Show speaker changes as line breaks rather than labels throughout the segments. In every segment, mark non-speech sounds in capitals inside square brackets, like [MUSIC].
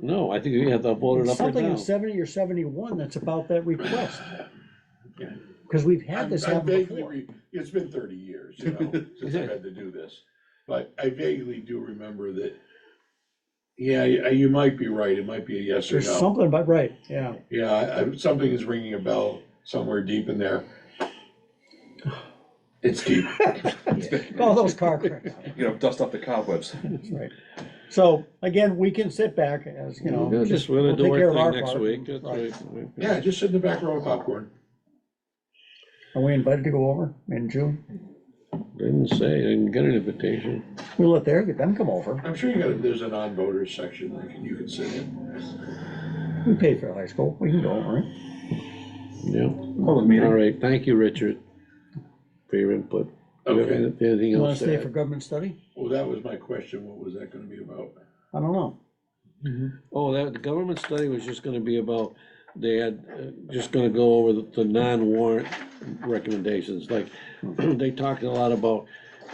No, I think you have to vote it up or
Something in
down.
seventy or seventy-one that's about that
[LAUGHS]
request. Cause we've had
I'm-
this
I
happen
vaguely
before.
re- It's been thirty years, you know,
[LAUGHS]
since I've had to do this, but I vaguely do remember that. Yeah, you you might be right, it might be a yes or
There's
no.
something about, right, yeah.
Yeah, I- I- something is ringing a bell somewhere deep in there. It's
[LAUGHS]
deep.
All those
[LAUGHS]
car crashes,
You know, dust off the cobwebs.
that's right. So again, we can sit back as, you know,
We're
just,
Just
we'll
gonna
take
do our
care of our
thing next
part.
week. That's
Right.
right. We- we-
Yeah, just sit in the back row of popcorn.
Are we invited to go over in June?
Didn't say, didn't get an invitation.
We'll let there, get them come over.
I'm sure you got, there's a non-voter section that you can sit in.
We paid for high school, we can go over it.
Yeah.
Public
All
meeting.
right, thank you, Richard, for your input. Do you have
Okay,
Anything
You wanna
else to
stay for
add?
government study?
well, that was my question, what was that gonna be about?
I don't know.
Oh, that, the government study was just gonna be about, they had, uh, just gonna go over the- the non-warrant recommendations, like, [CLEARS THROAT] they talked a lot about,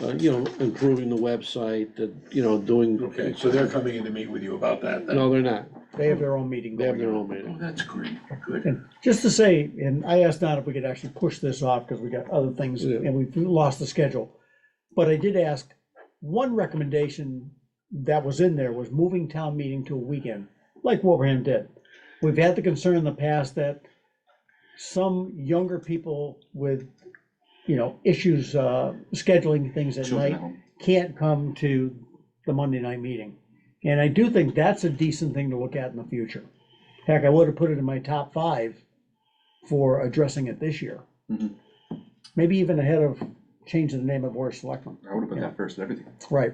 uh, you know, improving the website, that, you know, doing.
Okay, so they're coming in to meet with you about that then?
No, they're not,
They have their own meeting
they have
going
their
on.
own
Oh,
meeting.
that's great, good.
And just to say, and I asked Don if we could actually push this off, because we got other things,
Yeah.
and we've lost the schedule. But I did ask, one recommendation that was in there was moving town meeting to a weekend, like Wilbraham did. We've had the concern in the past that some younger people with, you know, issues, uh, scheduling things at
Children at
night
home.
can't come to the Monday night meeting. And I do think that's a decent thing to look at in the future. Heck, I would have put it in my top five for addressing it this year.
Mhm.
Maybe even ahead of changing the name of Board of Selectmen.
I would have put that first, and everything.
Right.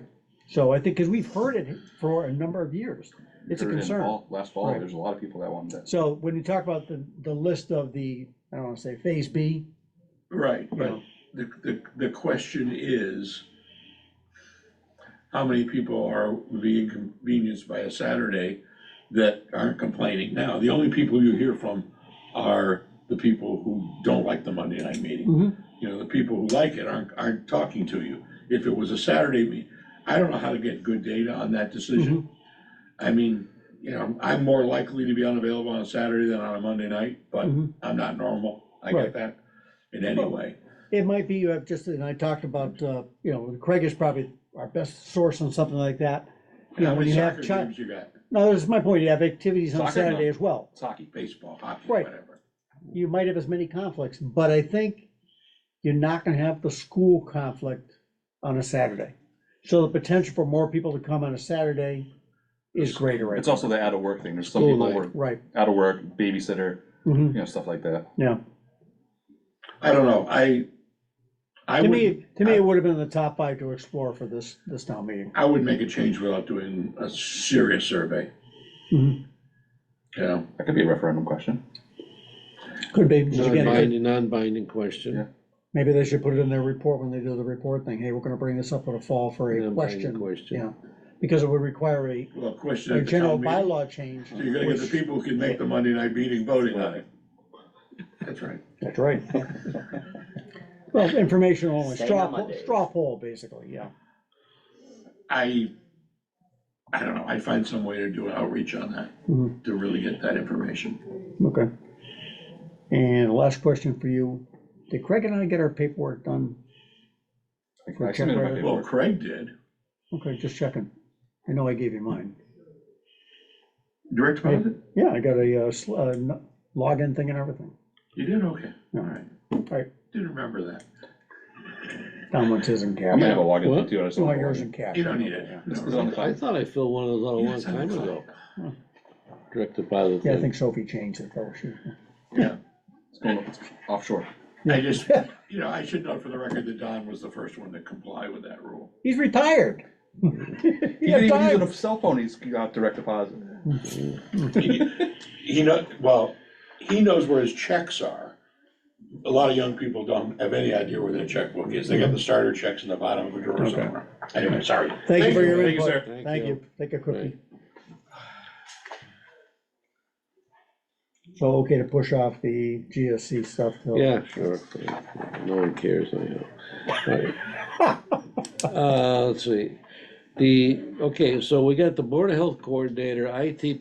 So I think, because we've heard it for a number of years. It's a
Heard it in
concern.
fall- Last fall,
Right.
there's a lot of people that wanted that.
So when you talk about the, the list of the, I don't want to say Phase B,
Right,
you
but
know,
the, the, the question is, how many people are being inconvenienced by a Saturday that aren't complaining now? The only people you hear from are the people who don't like the Monday night
Mhm.
Mm-hmm.
meeting. You know, the people who like it aren't, aren't talking to you. If it was a Saturday meet, I don't know how to get good data on that decision.
Mm-hmm.
I mean, you know, I'm more likely to be unavailable on a Saturday than on a Monday night, but
Mhm.
I'm not normal. I
Right.
get that in any
Well,
way.
It might be, you have just, and I talked about, uh, you know, Craig is probably our best source on something like that. You know,
How
when
many
you have
soccer
chi-
games you got?
No, this is my point, you have activities on
Soccer, no.
Saturday as well.
It's hockey.
Baseball, hockey,
Right.
whatever.
You might have as many conflicts, but I think you're not gonna have the school conflict on a Saturday. So the potential for more people to come on a Saturday is greater right
It's
now.
also the out of work thing. There's some
School
people
night.
who are
Right,
out of work, babysitter,
hmm
you know, stuff like that.
yeah.
I don't know, I, I
To
would,
me, to me, it would have been in the top five to explore for this, this town meeting.
I would make a change without doing a serious survey.
Mhm.
You know,
That could be a referendum question.
Could be, because again,
Non-binding, non-binding question.
Yeah.
maybe they should put it in their report when they do the report thing, hey, we're gonna bring this up in a fall for a
Non-binding
question.
Question.
Yeah, because it would require a,
well, question
a
at the
general
town meeting.
bylaw change.
So you're gonna get the
which-
people who can make the Monday night meeting voting on it. That's right.
That's right. [LAUGHS] Well, information only,
Same
straw,
on
poll-
Mondays.
straw poll, basically, yeah.
I, I don't know, I'd find some way to do an outreach on
Mhm.
that, to really get that information.
Okay. And last question for you, did Craig and I get our paperwork done?
I
Well,
I submitted my
Craig-
Well,
paperwork.
Craig did,
Okay, just checking. I know I gave you mine.
direct deposit,
Yeah, I got a uh, sl- uh, n- login thing and everything.
you did, okay, all right.
right.
Didn't remember that,
Don wants his in
I'm
cash.
gonna have a login
What?
thing too. I just
Oh, You
don't
want
have
yours
a
in
login.
cash.
you don't need it.
This
No.
[LAUGHS]
is on the
I
cloud.
thought I filled one of those out a long
It's on
time
the
ago,
cloud.
direct deposit.
Yeah, I
thing.
think Sophie changed it Oh, though. She-
Yeah,
It's going up- it's offshore.
I just, you know, I should note for the record that Don was the first one to comply with that rule.
He's retired. [LAUGHS]
He
He
didn't
had
even use
time.
a cell phone. He's got direct deposit.
He he know, well, he knows where his checks are. A lot of young people don't have any idea where their checkbook is. They got the starter checks in the bottom of the drawer
Okay.
somewhere. Anyway, sorry.
Thank you for your
Thank you,
input.
sir.
Thank
Thank
you.
you. Take a cookie.
Right.
So, okay to push off the GSC stuff till.
Yeah, sure. No one cares anyhow. Alright. [LAUGHS] Uh, let's see. The, okay, so we got the Board of Health Coordinator, IT